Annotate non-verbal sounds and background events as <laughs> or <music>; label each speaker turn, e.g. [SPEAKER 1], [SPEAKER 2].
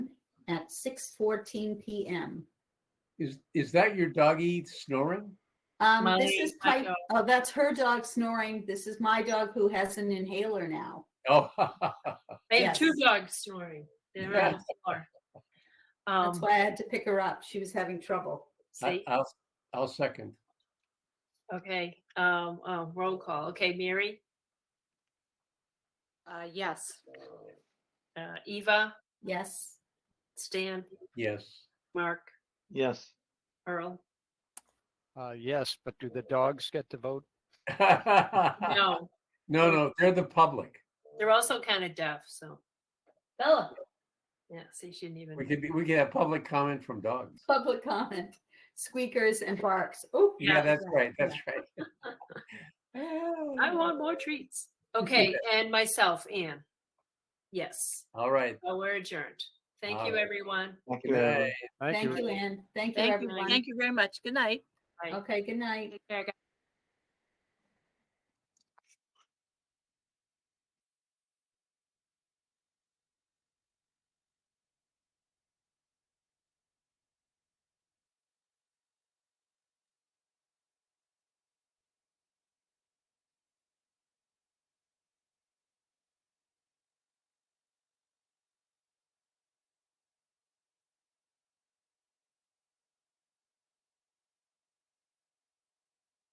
[SPEAKER 1] at 6:14 PM.
[SPEAKER 2] Is, is that your doggy snoring?
[SPEAKER 1] Um, this
[SPEAKER 3] Molly,
[SPEAKER 1] is
[SPEAKER 3] my
[SPEAKER 1] Pipe,
[SPEAKER 3] dog.
[SPEAKER 1] oh, that's her dog snoring. This is my dog who has an inhaler now.
[SPEAKER 2] Oh, <laughs>
[SPEAKER 3] I have two
[SPEAKER 1] Yes.
[SPEAKER 3] dogs snoring. They're on the floor.
[SPEAKER 1] That's
[SPEAKER 3] Um,
[SPEAKER 1] why uh, I had to pick her up. She was having trouble.
[SPEAKER 2] I-
[SPEAKER 3] see,
[SPEAKER 2] I'll, I'll second.
[SPEAKER 3] okay, um, uh, roll call. Okay, Mary,
[SPEAKER 4] Uh, yes.
[SPEAKER 3] uh, Eva,
[SPEAKER 1] Yes.
[SPEAKER 3] Stan,
[SPEAKER 2] Yes.
[SPEAKER 3] Mark,
[SPEAKER 5] Yes.
[SPEAKER 3] Earl.
[SPEAKER 6] Uh, yes, but do the dogs get to vote?
[SPEAKER 1] Uh,
[SPEAKER 2] No,
[SPEAKER 3] No,
[SPEAKER 2] <laughs> no, they're the public.
[SPEAKER 3] they're also kind of deaf, so,
[SPEAKER 4] Bella.
[SPEAKER 3] yeah, see, she didn't
[SPEAKER 2] We
[SPEAKER 3] even,
[SPEAKER 2] could, be- we could have public comment from dogs.
[SPEAKER 1] Public comment, squeakers and barks. Oh.
[SPEAKER 2] Yeah, that's right, that's right.
[SPEAKER 3] I want more treats. Okay, and myself, Anne. Yes,
[SPEAKER 2] <laughs> All right.
[SPEAKER 3] well, we're adjourned. Thank you,
[SPEAKER 2] All right.
[SPEAKER 3] everyone.
[SPEAKER 5] Thank
[SPEAKER 2] Good
[SPEAKER 5] you, everyone.
[SPEAKER 2] night.
[SPEAKER 1] Thank you, Ann. Thank you,
[SPEAKER 4] Thank you.
[SPEAKER 1] everyone.
[SPEAKER 4] Thank you very much. Good night.
[SPEAKER 1] Okay, good night.
[SPEAKER 4] Take care,